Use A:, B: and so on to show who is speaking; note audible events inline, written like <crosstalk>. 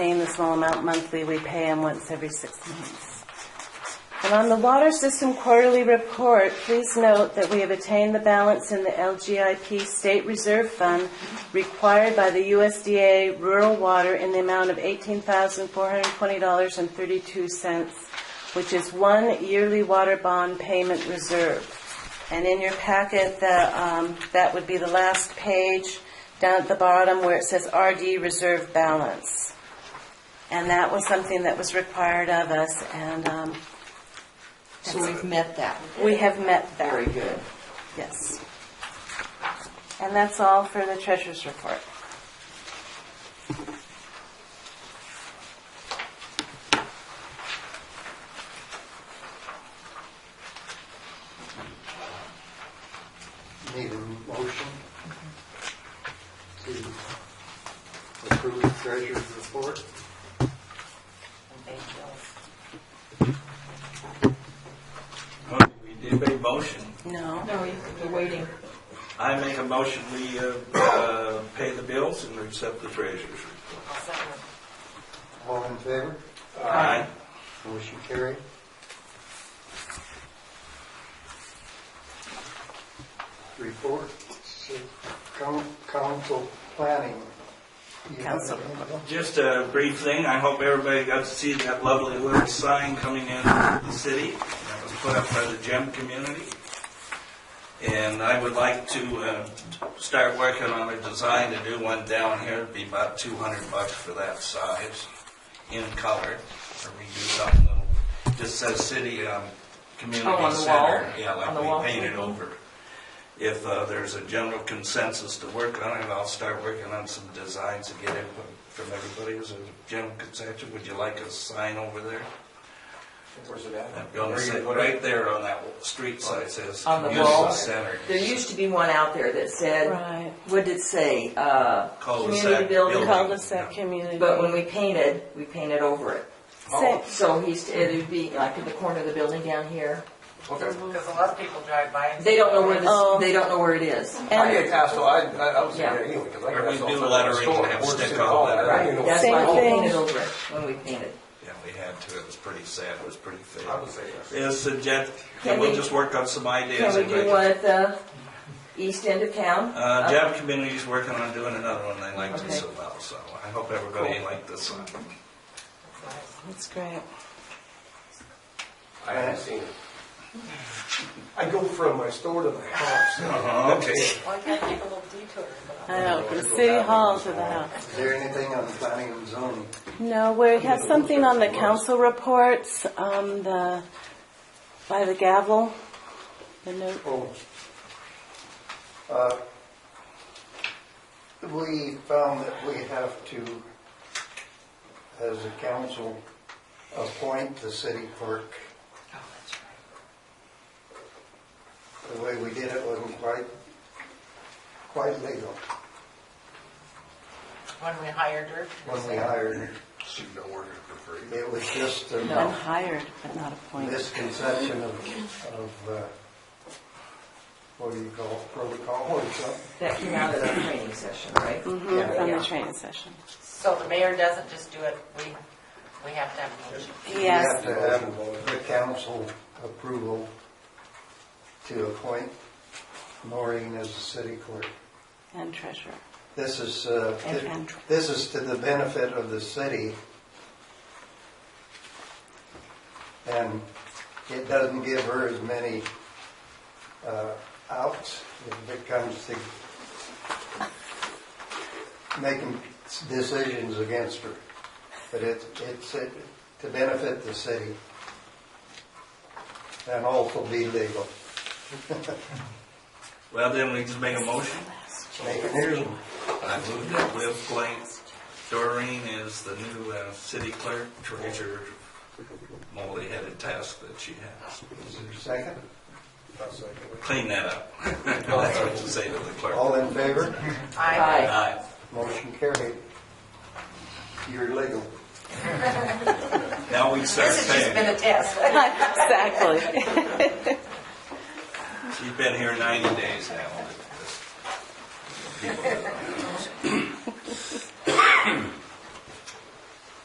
A: small amount monthly. We pay them once every six months. And on the water system quarterly report, please note that we have attained the balance in the LGIP State Reserve Fund required by the USDA Rural Water in the amount of $18,420.32, which is one yearly water bond payment reserve. And in your packet, the, um, that would be the last page, down at the bottom where it says RD Reserve Balance. And that was something that was required of us, and, um,
B: So we've met that.
A: we have met that.
B: Very good.
A: Yes. And that's all for the treasurer's report.
C: Need a motion to approve the treasurer's report?
D: We did make motion.
A: No.
B: No, you're waiting.
D: I make a motion, we uh, uh, pay the bills and accept the treasurer's report.
C: All in favor?
D: Aye.
C: Motion carried. Report, so coun- council planning. You have
A: Council.
C: anything?
D: Just a brief thing, I hope everybody got to see that lovely little sign coming in the city that was put up by the gem community. And I would like to uh, start working on a design to do one down here, it'd be about 200 bucks for that size, in color, or we do something little, just says city, um, community
B: Oh, on the
D: center.
B: wall?
D: Yeah,
B: On the
D: like
B: wall?
D: we painted over. If uh, there's a general consensus to work on it, I'll start working on some designs to get input from everybody. Is there a general consensus? Would you like a sign over there?
E: Where's it at?
D: That building sit right there on that w- street side says
B: On the
D: community
B: wall?
D: center.
B: There used to be one out there that said,
A: Right.
B: what did it say? Uh,
D: Cul-de-sac
B: Community building.
D: building.
A: Cul-de-sac community.
B: But when we painted, we painted over it.
A: Same.
B: So he's, it'd be like in the corner of the building down here.
E: Okay.
F: Because a lot of people drive by and.
B: They don't know where
A: Oh.
B: this, they don't know where it is.
E: I
A: And-
E: get asked, so I, I I was there anyway, because I
D: Or
E: got
D: we
E: asked
D: do
E: all the
D: lettering
E: time. Store,
D: and have
E: Ford City
D: stick on
E: Hall,
D: that,
E: I didn't know
B: That's
A: Same
B: why we
A: thing.
B: painted over it when we painted.
D: Yeah, we had to. It was pretty sad. It was pretty thin.
E: I would say yes.
D: Yes, and Jen,
B: Can
D: we'll
B: we-
D: just work on some ideas.
B: Can we do uh,
D: Everybody-
B: one at the east end of town?
D: Uh, Jab Community's working on doing another one, they liked it
B: Okay.
D: so well, so I hope everybody liked this one.
A: That's great.
E: I haven't seen it. I go from my store to my house.
D: Uh-huh, okay.
F: Why can't I take a little detour?
A: I know, from City Hall to the house.
C: Is there anything on planning and zoning?
A: No, we have something on the council reports, um, the, by the gavel, the note.
C: Oh. Uh, We found that we have to, as a council, appoint the city clerk. The way we did it wasn't quite, quite legal
F: When we hired her.
C: when we hired her.
E: She don't work for free.
C: It was just a
A: I'm hired, but not appointed.
C: misconception of, of, uh, what do you call it, protocol or something.
B: That came out of the training session, right?
A: Mhm, From the
B: Yeah.
A: training session.
F: So the mayor doesn't just do it, we, we have to have a motion.
A: Yes,
C: You have to have the council approval to appoint Maureen as the city clerk.
A: and treasurer.
C: This is, uh,
A: And- and-
C: this is to the benefit of the city. And it doesn't give her as many uh, outs if it comes to making decisions against her. But it's, it's uh, to benefit the city and also be legal.
D: Well, then we just make a motion.
C: Make it legal.
D: I move that Liv Blank Doreen is the new uh, city clerk treasurer multi-headed task that she has.
C: Is there a second?
D: Clean that up. <laughs> That's what you say to the clerk.
C: All in favor?
F: I,
D: Aye.
C: Motion carried. You're legal.
D: Now we start
F: this has just been
D: paying.
F: a test.
A: Exactly.
D: She's been here 90 days now.